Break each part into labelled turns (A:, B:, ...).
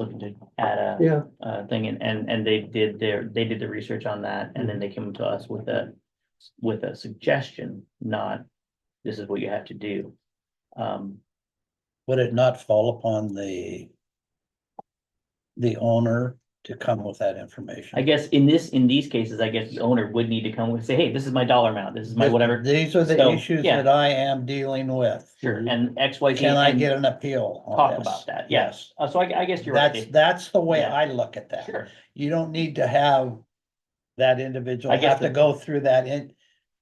A: looking to add a,
B: Yeah,
A: a thing and, and, and they did their, they did the research on that and then they came to us with a, with a suggestion, not this is what you have to do. Um,
C: Would it not fall upon the the owner to come with that information?
A: I guess in this, in these cases, I guess the owner would need to come and say, hey, this is my dollar amount, this is my
C: Th-
A: whatever.
C: These are the
A: So,
C: issues
A: yeah.
C: that I am dealing with.
A: Sure, and X, Y, Z.
C: Can I
A: and-
C: get an appeal? on
A: talk
C: this?
A: about that, yeah. uh, So I, I guess you're right.
C: That's, that's the way
A: Yeah.
C: I look at that.
A: Sure,
C: You don't need to have that individual
A: I guess
C: have to
A: the-
C: go through that in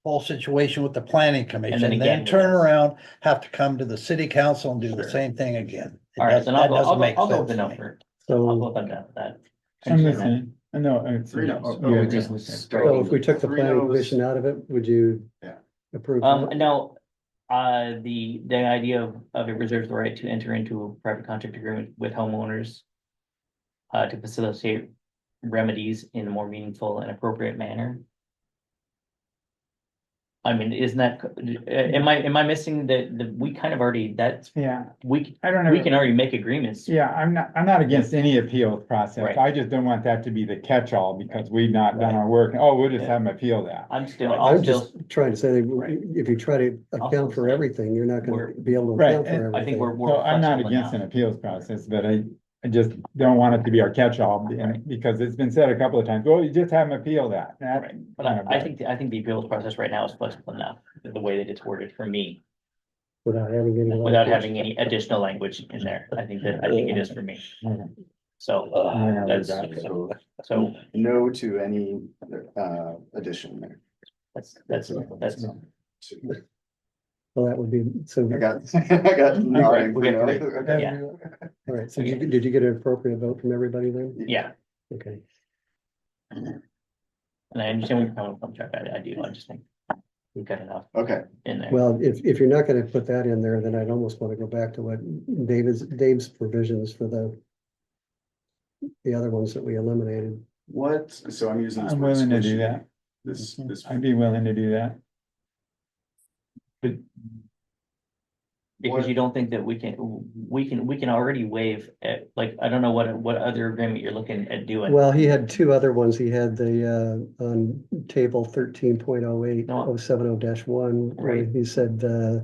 C: whole situation with the planning commission,
A: again
C: then
A: with
C: turn
A: us.
C: around, have to come to the city council and do the
A: Sure.
C: same thing again. It
A: all right,
C: does-
A: then I'll
C: that
A: go, I'll
C: doesn't
A: go,
C: make
A: I'll go
C: sense
A: with the
C: to me.
A: number. I'll go
B: so,
A: with that, that.
D: I'm
A: Actually,
D: listening. I know. it's-
E: Three to- oh,
D: yeah,
E: oh,
D: just-
E: yeah.
B: so if we took the
E: Three
B: planning
E: no's.
B: commission out of it, would you?
E: Yeah.
B: Approve?
A: Um,
B: that?
A: now, uh, the, the idea of, of it reserves the right to enter into a private contract agreement with homeowners. Uh, to facilitate remedies in a more meaningful and appropriate manner. I mean, isn't that, uh, am I, am I missing that, the, we kind of already, that's,
D: Yeah,
A: we,
D: I don't
A: we can
D: know.
A: already make agreements.
D: Yeah, I'm not, I'm not against any appeals
A: Right.
D: process. I just don't want that to be the catch-all because we've not done our work. Oh, we'll just have them appeal that.
A: I'm still,
B: I'm
A: I'll still,
B: just trying to say, that
A: Right.
B: if you try to account for
A: say-
B: everything, you're not gonna
A: We're-
B: be able to
D: Right,
B: account
D: and
B: for
A: I think
B: everything.
A: we're, we're.
D: So I'm not
A: flexible
D: against an
A: enough.
D: appeals process, but I, I just don't want it to be our catch-all be-
A: Right.
D: because it's been said a couple of times, well, you just have them appeal that. That-
A: Right, But I, I think, I think the appeals process right now is flexible enough, the way that it's worded for me.
B: Without having any.
A: without having any additional language in there. I think that, I think it is for me.
B: Mm-hmm.
A: So,
B: Uh,
D: I know
A: uh, that's-
D: exactly.
E: So
A: so
E: no to any uh addition there.
A: that's, that's, that's,
B: Well, that would be, so,
E: I got, I got. nodding,
A: we got
E: you know.
D: Every-
A: yeah.
B: all right, so did you, did you get an appropriate vote from everybody then?
A: yeah.
B: Okay,
A: And I understand where you're coming from, Chuck. I, I do. I just think we've got enough
E: Okay,
A: in there.
B: well, if, if you're not gonna put that in there, then I'd almost wanna go back to what David's, Dave's provisions for the the other ones that we eliminated.
E: what, so I'm using. this
D: I'm
E: word
D: willing to do
E: squishy.
D: that.
E: This, this,
D: I'd be willing to do that.
A: Because you don't think that we can, we can, we can already waive, eh, like, I don't know what, what other agreement you're looking at doing.
B: Well, he had two other ones. He had the, uh, on table thirteen point oh eight, oh seven oh dash one, where
A: Right.
B: he said, uh,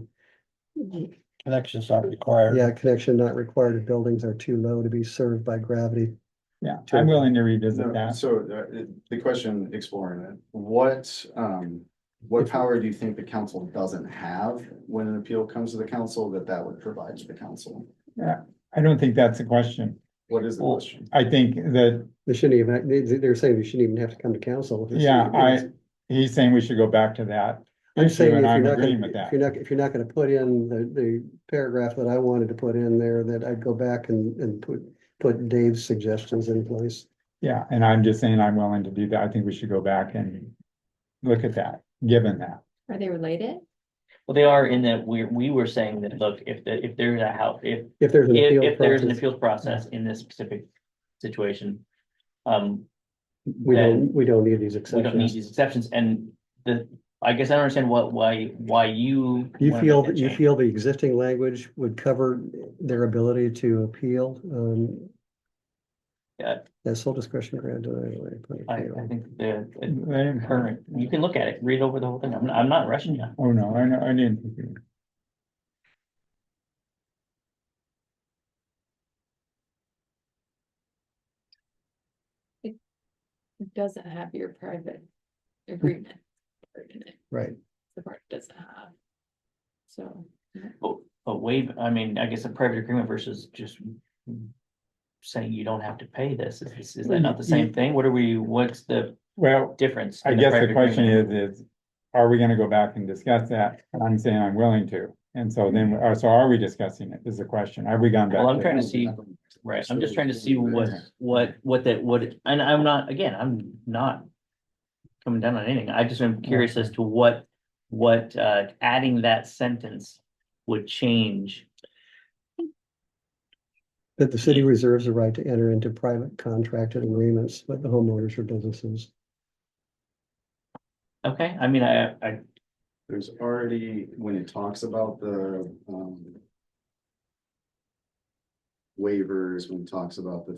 C: Connections not required.
B: yeah, connection not required if buildings are too low to be served by gravity.
D: Yeah,
B: Sure.
D: I'm willing to revisit
E: no,
D: that.
E: so uh, the question exploring it, what um, what power do you think the council doesn't have when an appeal comes to the council that that would provide to the council?
D: I don't think that's a question.
E: What is the
A: Well,
E: question?
D: I think that
B: They shouldn't even, they, they're saying we shouldn't even have to come to council.
D: Yeah, I- he's saying we should go back to that.
B: I'm saying if
D: And
B: you're
D: I'm
B: not
D: agreeing
B: gonna,
D: with that.
B: if you're not, if you're not gonna put in the, the paragraph that I wanted to put in there, that I'd go back and, and put, put Dave's suggestions in place.
D: Yeah, and I'm just saying I'm willing to do that. I think we should go back and look at that, given that.
F: Are they related?
A: Well, they are in that we, we were saying that, look, if, the if there's a house, if,
B: If there's an
A: if,
B: appeal
A: if there's an
B: process,
A: appeals process in this specific situation, um,
B: we don't,
A: then
B: we don't need these
A: we don't need
B: exceptions.
A: these exceptions, and the, I guess I don't understand what, why, why you.
B: You
A: wanna
B: feel,
A: make that
B: that you
A: change.
B: feel the existing language would cover their ability to appeal, um.
A: Yeah.
B: That's sole discretion granted.
A: I, I think the, the
D: They-
A: current, you can look at it, read over the whole thing, I'm, I'm not rushing you.
D: Oh, no, I know, I didn't.
F: It doesn't have your private agreement. part in it.
B: Right.
F: The part it doesn't have. So,
A: But, but waive, I mean, I guess a private agreement versus just saying you don't have to pay this, is,
B: Mm,
A: is that not the same thing? What are we, what's the
D: Well,
A: difference?
D: I
A: in a
D: guess the
A: private
D: question
A: agreement?
D: is, is are we gonna go back and discuss that? And I'm saying I'm willing to. And so then, or so are we discussing it is the question. Have we gone back?
A: Well, I'm
D: to-
A: trying to see- Right, I'm just trying to see what, what, what that, what, and I'm not, again, I'm not coming down on anything, I just am curious as to what, what, uh, adding that sentence would change.
B: That the city reserves the right to enter into private contracted agreements with the homeowners or businesses.
A: Okay, I mean, I, I,
E: There's already, when it talks about the um. Waivers, when it talks about the